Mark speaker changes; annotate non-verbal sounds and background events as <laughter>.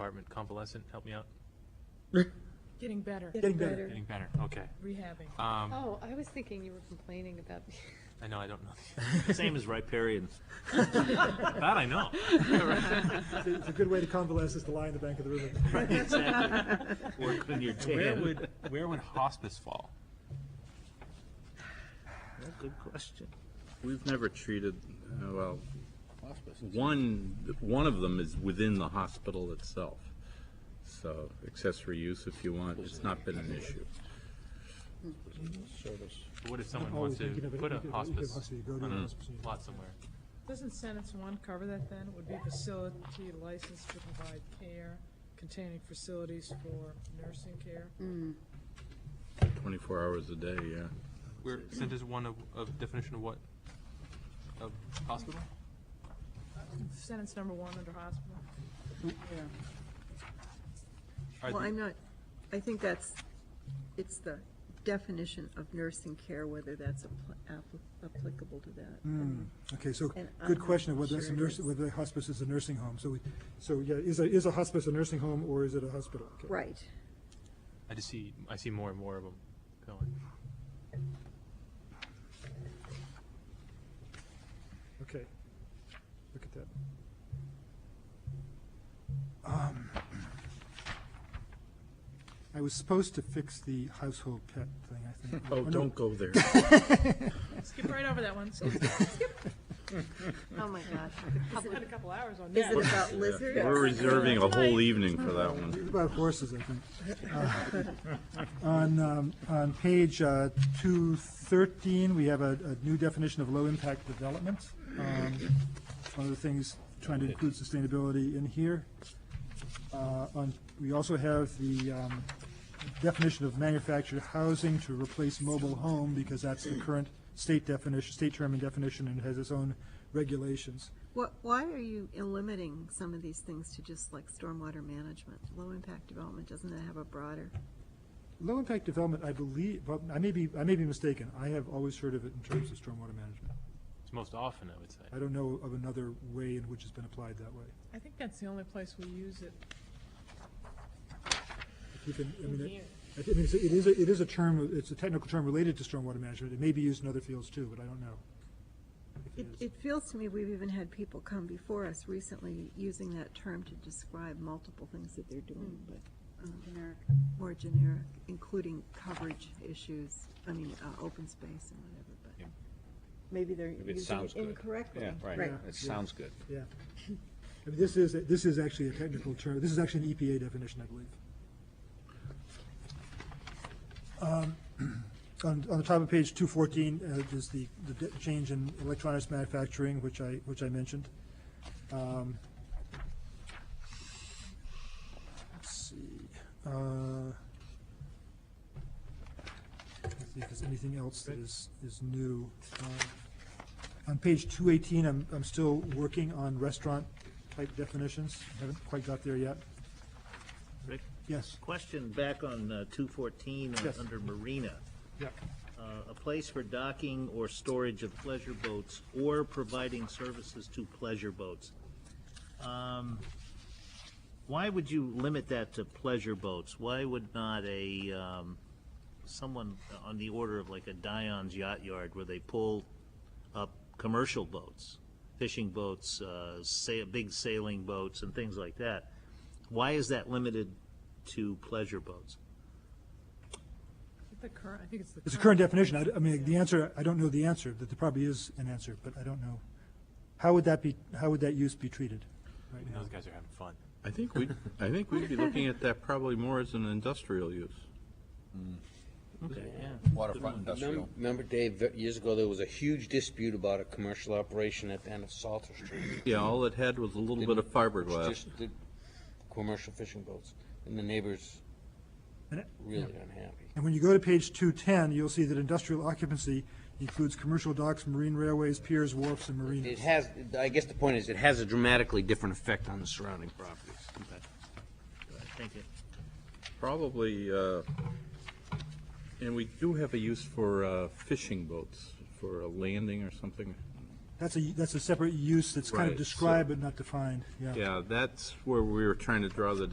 Speaker 1: term, convalescent, help me out,
Speaker 2: Getting better,
Speaker 3: Getting better.
Speaker 1: getting better, okay.
Speaker 2: rehabbing.
Speaker 1: Um,
Speaker 4: Oh, I was thinking you were complaining about,
Speaker 1: I know, I don't <laughs> know.
Speaker 5: Same as riparians.
Speaker 1: <laughs> That I know.
Speaker 3: It's a- It's a good way to convalesce is to lie in the bank of the river.
Speaker 5: Exactly. Work on your
Speaker 1: Where
Speaker 5: tan.
Speaker 1: would, where would hospice fall?
Speaker 5: Good question.
Speaker 6: We've never treated, uh, well, one, one of them is within the hospital itself. So accessory use, if you want, it's not been an issue.
Speaker 1: What if someone
Speaker 3: <laughs>
Speaker 1: wants
Speaker 3: Always
Speaker 1: to
Speaker 3: thinking of it,
Speaker 1: put
Speaker 3: you
Speaker 1: a
Speaker 3: could- you could
Speaker 1: hospice
Speaker 3: hospice, you go to a
Speaker 1: on
Speaker 3: hospice and
Speaker 1: a
Speaker 3: you-
Speaker 1: lot somewhere?
Speaker 2: Doesn't sentence one cover that then? It would be facility licensed to provide care containing facilities for nursing care.
Speaker 6: 24 hours a day, yeah.
Speaker 1: Where, sentence one of, of definition of what? Of hospital?
Speaker 2: Sentence number one under hospital.
Speaker 1: Are
Speaker 7: Well,
Speaker 1: the-
Speaker 7: I'm not, I think that's, it's the definition of nursing care, whether that's appl- appli- applicable to that.
Speaker 3: Hmm. Okay, so,
Speaker 7: And I'm
Speaker 3: good
Speaker 7: not
Speaker 3: question of whether it's a
Speaker 7: sure it
Speaker 3: nurse,
Speaker 7: is.
Speaker 3: whether a hospice is a nursing home. So, we- so, yeah, is a, is a hospice a nursing home or is it a hospital? Okay.
Speaker 7: Right.
Speaker 1: I just see, I see more and more of them going.
Speaker 3: Okay, look at that. Um, I was supposed to fix the household pet thing, I think.
Speaker 6: Oh,
Speaker 3: no.
Speaker 6: don't go
Speaker 3: <laughs>
Speaker 6: there.
Speaker 2: Skip right over that one. Skip.
Speaker 7: Oh, my gosh.
Speaker 2: Spend a couple hours on
Speaker 7: Is
Speaker 2: that.
Speaker 7: it about lizards?
Speaker 6: We're reserving a whole evening for that one.
Speaker 3: It's about horses, I think. Uh, <laughs> On, um, on page uh, 213, we have a, a new definition of low-impact development. Um, it's One of the things, trying to include sustainability in here. Uh, On, we also have the um, definition of manufactured housing to replace mobile home, because that's the current state definition, state term and definition, and has its own regulations.
Speaker 7: What, why are you limiting some of these things to just like stormwater management? Low-impact development, doesn't that have a broader?
Speaker 3: Low-impact development, I believe, well, I may be, I may be mistaken. I have always heard of it in terms of stormwater management.
Speaker 1: It's most often, I would say.
Speaker 3: I don't know of another way in which it's been applied that way.
Speaker 2: I think that's the only place we use it.
Speaker 3: If you can, I mean, it- I think it's- it is, a- it is a term, it's a technical term related to stormwater management. It may be used in other fields too, but I don't know. if
Speaker 7: It,
Speaker 3: is.
Speaker 7: it feels to me we've even had people come before us recently using that term to describe multiple things that they're doing, but. um, More generic, including coverage issues, I mean, uh, open space and whatever, but maybe they're
Speaker 5: Maybe it
Speaker 7: using
Speaker 5: sounds
Speaker 7: it
Speaker 5: good.
Speaker 7: incorrectly.
Speaker 5: Yeah, right.
Speaker 7: Right.
Speaker 5: It sounds good.
Speaker 3: Yeah. I mean, this is, this is actually a technical term. This is actually an EPA definition, I believe. Um, <clears throat> On, on the top of page two fourteen, uh, is the, the de- change in electronics manufacturing, which I, which I mentioned. Um, Let's see, uh, let's see if there's anything else that is, is new. Um, on page two eighteen, I'm, I'm still working on restaurant-type definitions. Haven't quite got there yet.
Speaker 5: Rick,
Speaker 3: Yes.
Speaker 5: question back on uh, 214 on-
Speaker 3: Yes.
Speaker 5: under Marina.
Speaker 3: Yeah.
Speaker 5: Uh, A place for docking or storage of pleasure boats or providing services to pleasure boats. Um, Why would you limit that to pleasure boats? Why would not a, um, someone on the order of like a Dion's Yacht Yard where they pull up commercial boats, fishing boats, uh, sa- big sailing boats and things like that? Why is that limited to pleasure boats?
Speaker 2: The current, I think it's the.
Speaker 3: It's a current definition. I, d- I mean, the answer, I don't know the answer, that there probably is an answer, but I don't know. How would that be, how would that use be treated right now?
Speaker 6: Mm-hmm.
Speaker 1: Those guys are having fun.
Speaker 6: I think we, I think we'd be looking at that probably more as an industrial use.
Speaker 5: Okay, Mm. yeah.
Speaker 8: Waterfront industrial. Remember, Dave, that years ago, there was a huge dispute about a commercial operation at the end of Salter Street.
Speaker 6: Yeah, all it had was a little bit of fiberglass.
Speaker 8: Just the Commercial fishing boats, and the neighbors
Speaker 3: And it-
Speaker 8: really unhappy.
Speaker 3: And when you go to page two-ten, you'll see that industrial occupancy includes commercial docks, marine railways, piers, wharfs, and
Speaker 8: It
Speaker 3: marinas.
Speaker 8: has, I guess the point is, it has a dramatically different effect on the surrounding properties.
Speaker 5: Thank you.
Speaker 6: Probably, uh, and we do have a use for uh, fishing boats, for a landing or something.
Speaker 3: That's a, that's a separate use that's kind of
Speaker 6: Right, so-
Speaker 3: described but not defined,
Speaker 6: Yeah, that's where we were trying to draw the